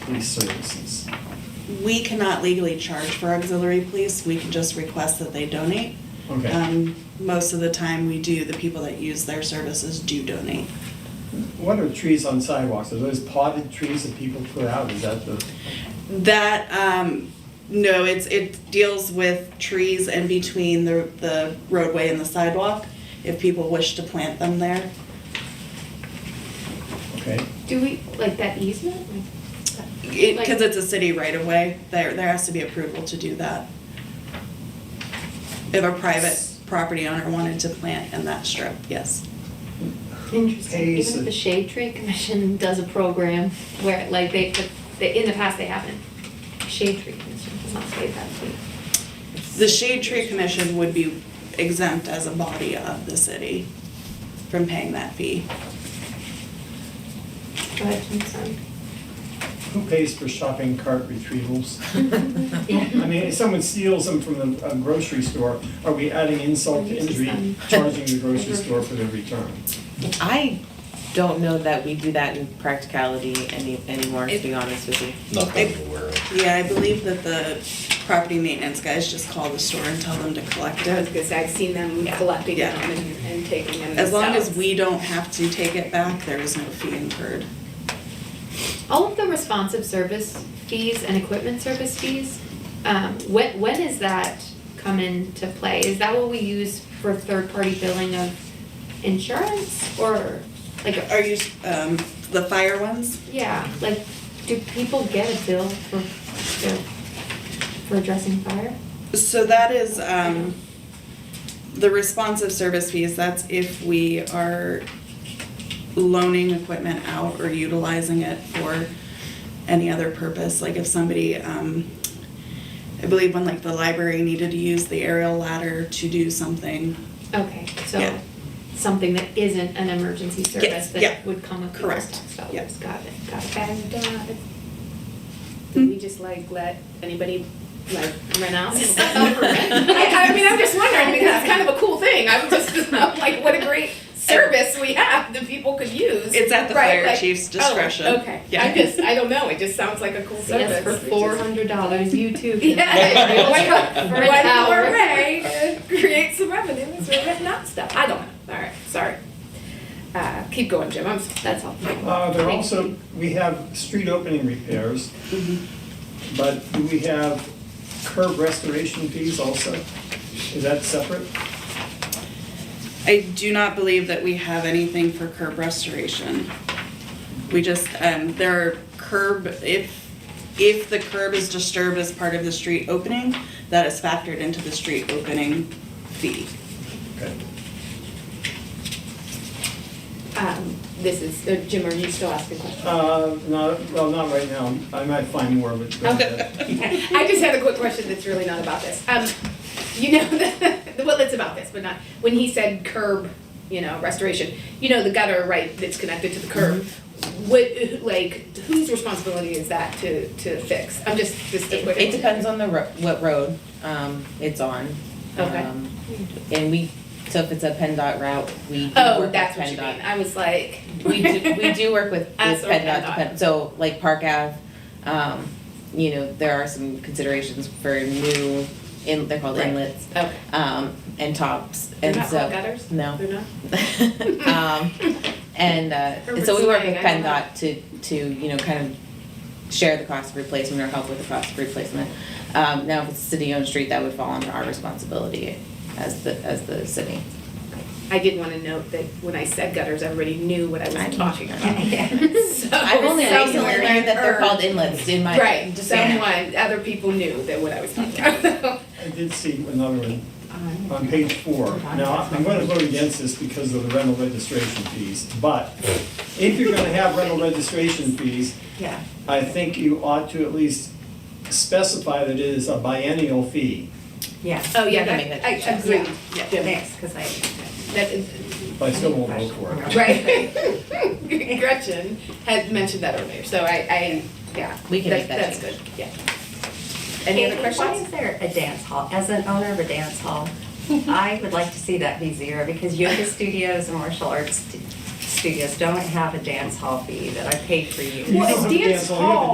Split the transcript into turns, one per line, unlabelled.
police services.
We cannot legally charge for auxiliary police, we can just request that they donate.
Okay.
Um, Most of the time we do, the people that use their services do donate.
What are trees on sidewalks? Are those potted trees that people put out? Is that the,
That, um, no, it's, it deals with trees in between the, the roadway and the sidewalk, if people wish to plant them there.
okay?
Do we, like that easement? Like,
It, cause it's a city right of way, there, there has to be approval to do that. If a private property owner wanted to plant in that strip, yes.
Interesting.
Pays
Even if
it.
the Shade Tree Commission does a program where, like, they, but they, in the past, they haven't. Shade Tree Commission does not say that.
The Shade Tree Commission would be exempt as a body of the city from paying that fee.
Go ahead, Jim, sorry.
Who pays for shopping cart retrievals?
Yeah.
I mean, if someone steals them from the a grocery store, are we adding insult to injury, charging the grocery store for their return?
I don't know that we do that in practicality any, anymore, to be honest with you.
Not that I'm aware of.
Yeah, I believe that the property maintenance guys just call the store and tell them to collect
I was
it.
gonna say, I've seen them collecting
Yeah.
them and, and taking them
As long as
themselves.
we don't have to take it back, there is no fee incurred.
All of the responsive service fees and equipment service fees, um, when, when is that come into play? Is that what we use for third-party billing of insurance or like?
Are you, um, the fire ones?
Yeah, like, do people get a bill for, their- for addressing fire?
So that is, um, the responsive service fees, that's if we are loaning equipment out or utilizing it for any other purpose, like if somebody, um, I believe when like the library needed to use the aerial ladder to do something,
Okay,
Yeah.
so something that isn't an emergency service
Yes, yeah.
that would come with people's
Correct,
tax dollars.
yeah.
Got it, got it.
And, uh, do we just like let anybody like rent out? I, I mean, I'm just wondering because it's kind of a cool thing. I'm just I'm like, what a great service we have that people could use.
it's at the
Right,
fire
like,
chief's
oh,
discretion.
okay.
Yeah.
I just, I don't know. It just sounds like a cool service.
Yes, for four hundred dollars, you too can.
Yeah, one,
For
one
an
more
hour.
way to create some revenue is we're renting out stuff. I don't know. All right, sorry. Uh, keep going, Jim. I'm sorry.
That's helpful.
Uh, there are
Thank
also,
you.
we have street opening repairs,
Mm-hmm.
but do we have curb restoration fees also? Is that separate?
I do not believe that we have anything for curb restoration. We just, um, there are curb, if, if the curb is disturbed as part of the street opening, that is factored into the street opening fee.
Okay.
Um, this is, uh, Jim, are you still asking questions?
Uh, no, well, not right now. I might find more of it. but, uh,
I just had a quick question that's really not about this. Um, you know, the, well, it's about this, but not, when he said curb, you know, restoration, you know, the gutter, right, that's connected to the curb.
Mm-hmm.
What, like, whose responsibility is that to, to fix? I'm just, just a
It,
quick.
it depends on the ro- what road, um, it's on.
Okay.
Um, And we, so if it's a PennDOT route, we do work
Oh,
with
that's what you
PennDOT.
mean. I was like.
we do, we do work with, with
Us or
PennDOT,
PennDOT.
depend- so like Park Ave, um, you know, there are some considerations for new, in, they're called
Right.
inlets,
Okay.
um, and tops,
They're
and
not
so.
called gutters?
No.
They're not?
Um, and, uh, and so we work with
Urban slang, I
PennDOT to, to, you know, kind of share the cost of replacement or help with the cost of replacement. Um, now, if it's a city-owned street, that would fall under our responsibility as the, as the city.
I did want to note that when I said gutters, everybody knew what
I
I was
know.
talking about. Uh, So
I've only recently
somewhere
learned that they're
or-
called inlets in my.
Right,
just-
someone, other people knew that what I was talking about. Um,
I did see another one on page four. Now, I'm gonna vote against this because of the rental registration fees, but if you're gonna have rental registration fees,
Yeah.
I think you ought to at least specify that it is a biennial fee
Yeah.
Oh, yeah,
You can
that,
make that
I
change.
agree.
Yeah, thanks, because I.
That is,
but I still won't vote for it.
right. Gretchen had mentioned that earlier, so I, I, yeah.
We can make that
That's good, yeah. Any other
Why
questions?
is there a dance hall? As an owner of a dance hall, I would like to see that be zero because yoga studios and martial arts stu- studios don't have a dance hall fee that I paid for years.
You don't have to dance
dance
all, you have to
hall